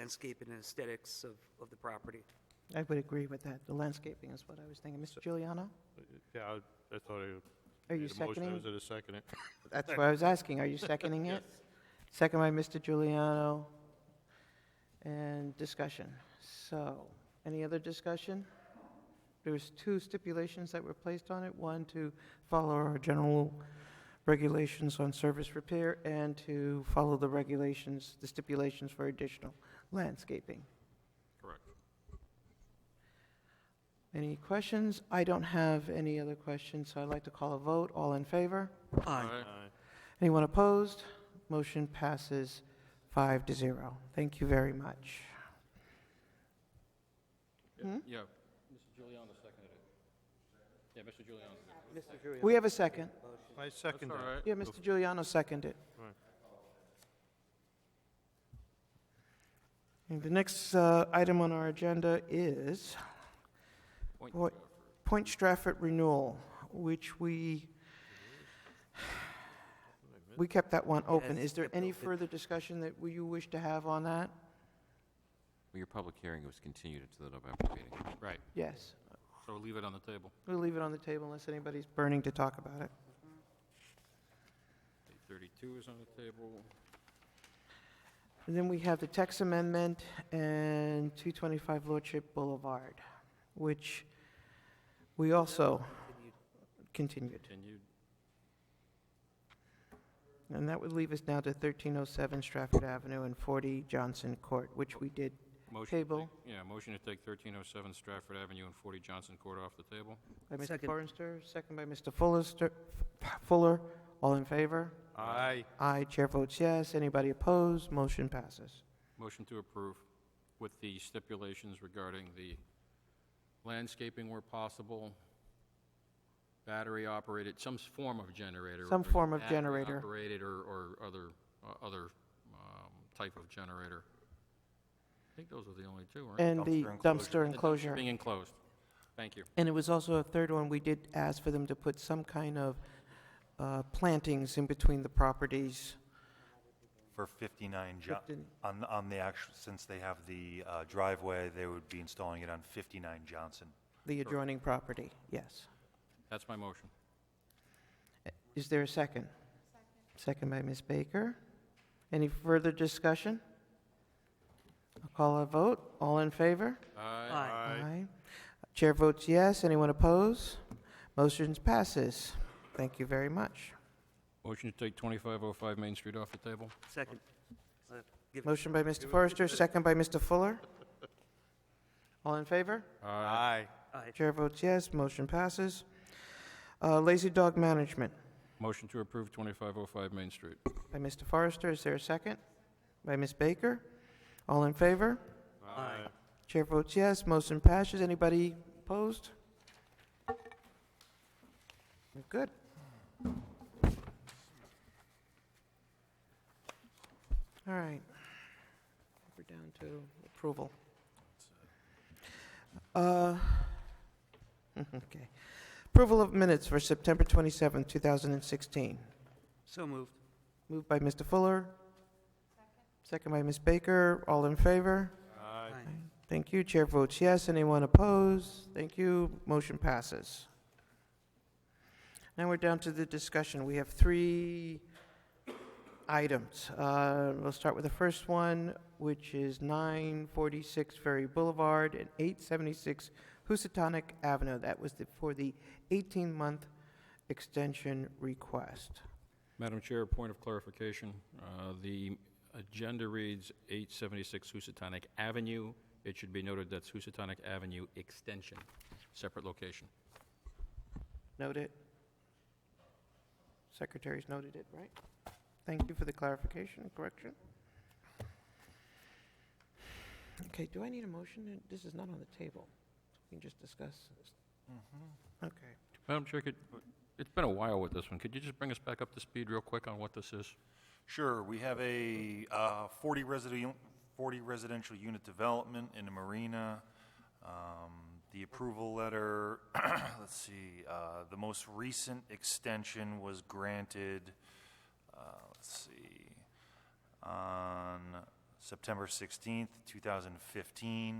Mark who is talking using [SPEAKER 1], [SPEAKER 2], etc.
[SPEAKER 1] landscape and aesthetics of, of the property.
[SPEAKER 2] I would agree with that. The landscaping is what I was thinking. Mr. Giuliano?
[SPEAKER 3] Yeah, I- I thought I.
[SPEAKER 2] Are you
[SPEAKER 3] made a motion.
[SPEAKER 2] seconding?
[SPEAKER 3] I was gonna second it.
[SPEAKER 2] That's what I was asking. Are you seconding it? Second by Mr. Giuliano. And discussion. So, any other discussion? There was two stipulations that were placed on it. One, to follow our general regulations on service repair and to follow the regulations, the stipulations for additional landscaping.
[SPEAKER 3] Correct.
[SPEAKER 2] Any questions? I don't have any other questions, so I'd like to call a vote. All in favor?
[SPEAKER 3] Aye.
[SPEAKER 2] Anyone opposed? Motion passes five to zero. Thank you very much.
[SPEAKER 4] Yeah. Mr. Giuliano seconded it. Yeah, Mr. Giuliano.
[SPEAKER 2] We have a second.
[SPEAKER 3] I second
[SPEAKER 4] All
[SPEAKER 3] it.
[SPEAKER 4] right.
[SPEAKER 2] Yeah, Mr. Giuliano seconded.
[SPEAKER 3] Right.
[SPEAKER 2] And The next uh, item on our agenda is
[SPEAKER 4] Point
[SPEAKER 2] Point- Point Stratford renewal, which we, we kept that one open.
[SPEAKER 1] Yes,
[SPEAKER 2] Is there
[SPEAKER 1] kept
[SPEAKER 2] any
[SPEAKER 1] open.
[SPEAKER 2] further discussion that you wish to have on that?
[SPEAKER 5] Well, your public hearing was continued to the November meeting.
[SPEAKER 4] Right,
[SPEAKER 2] Yes.
[SPEAKER 4] so we'll leave it on the table,
[SPEAKER 2] We'll leave it on the table unless anybody's burning to talk about it.
[SPEAKER 4] eight thirty-two is on the table.
[SPEAKER 2] And then we have the text amendment and 225 Lordship Boulevard, which we also continued.
[SPEAKER 4] Continued.
[SPEAKER 2] And that would leave us now to 1307 Stratford Avenue and 40 Johnson Court, which we did
[SPEAKER 4] Motion to
[SPEAKER 2] table
[SPEAKER 4] take- Yeah, motion to take thirteen oh seven Stratford Avenue and forty Johnson Court off the table.
[SPEAKER 2] by Mr.
[SPEAKER 1] Second.
[SPEAKER 2] Forrester, second by Mr. Fullester- Fuller. All in favor?
[SPEAKER 3] Aye.
[SPEAKER 2] Aye. Chair votes yes. Anybody opposed? Motion passes.
[SPEAKER 4] Motion to approve with the stipulations regarding the landscaping where possible, battery-operated, some form of generator.
[SPEAKER 2] Some
[SPEAKER 4] or
[SPEAKER 2] form of generator.
[SPEAKER 4] Operated or, or other, uh, other um, type of generator. I think those are the only two, aren't they?
[SPEAKER 2] And the dumpster enclosure.
[SPEAKER 4] Being enclosed. Thank you.
[SPEAKER 2] And it was also a third one, we did ask for them to put some kind of uh, plantings in between the properties.
[SPEAKER 6] For 59 Jo-
[SPEAKER 2] 15.
[SPEAKER 6] on, on the actual, since they have the uh, driveway, they would be installing it on 59 Johnson.
[SPEAKER 2] The adjoining property, yes.
[SPEAKER 4] That's my motion.
[SPEAKER 2] Is there a second? Second by Ms. Baker. Any further discussion? I'll call a vote. All in favor?
[SPEAKER 4] Aye.
[SPEAKER 1] Aye.
[SPEAKER 2] Aye. Chair votes yes. Anyone oppose? Motion passes. Thank you very much.
[SPEAKER 4] Motion to take 2505 Main Street off the table.
[SPEAKER 1] Second. Uh, give-
[SPEAKER 2] Motion by Mr. Forrester, second by Mr. Fuller. All in favor?
[SPEAKER 3] Aye.
[SPEAKER 1] aye.
[SPEAKER 2] Chair votes yes, motion passes. Uh, Lazy Dog Management
[SPEAKER 4] Motion to approve 2505 Main Street.
[SPEAKER 2] by Mr. Forrester, is there a second? By Ms. Baker? All in favor?
[SPEAKER 1] Aye.
[SPEAKER 2] Chair votes yes, motion passes. Anybody opposed? We're Good. All right. We're down to approval. Uh, Okay. Approval of minutes for September 27, 2016.
[SPEAKER 1] So moved.
[SPEAKER 2] Moved by Mr. Fuller. Second by Ms. Baker. All in favor?
[SPEAKER 3] Aye.
[SPEAKER 1] Aye.
[SPEAKER 2] Thank you. Chair votes yes. Anyone opposed? Thank you. Motion passes. Now we're down to the discussion. We have three items. Uh, We'll start with the first one, which is 946 Ferry Boulevard and 876 Housatonic Avenue. That was the- for the 18-month extension request.
[SPEAKER 4] Madam Chair, a point of clarification. Uh, The agenda reads 876 Housatonic Avenue. It should be noted that's Housatonic Avenue Extension, separate location.
[SPEAKER 2] Note it. Secretary's noted it, right? Thank you for the clarification and correction. Okay, do I need a motion? This is not on the table. We can just discuss. this. Okay.
[SPEAKER 4] Madam Chair, could- it's been a while with this one. Could you just bring us back up to speed real quick on what this is?
[SPEAKER 6] Sure, we have a uh, 40 residential, 40 residential unit development in the marina. Um, The approval letter, let's see, uh, the most recent extension was granted, uh, let's see, on September 16th, 2015,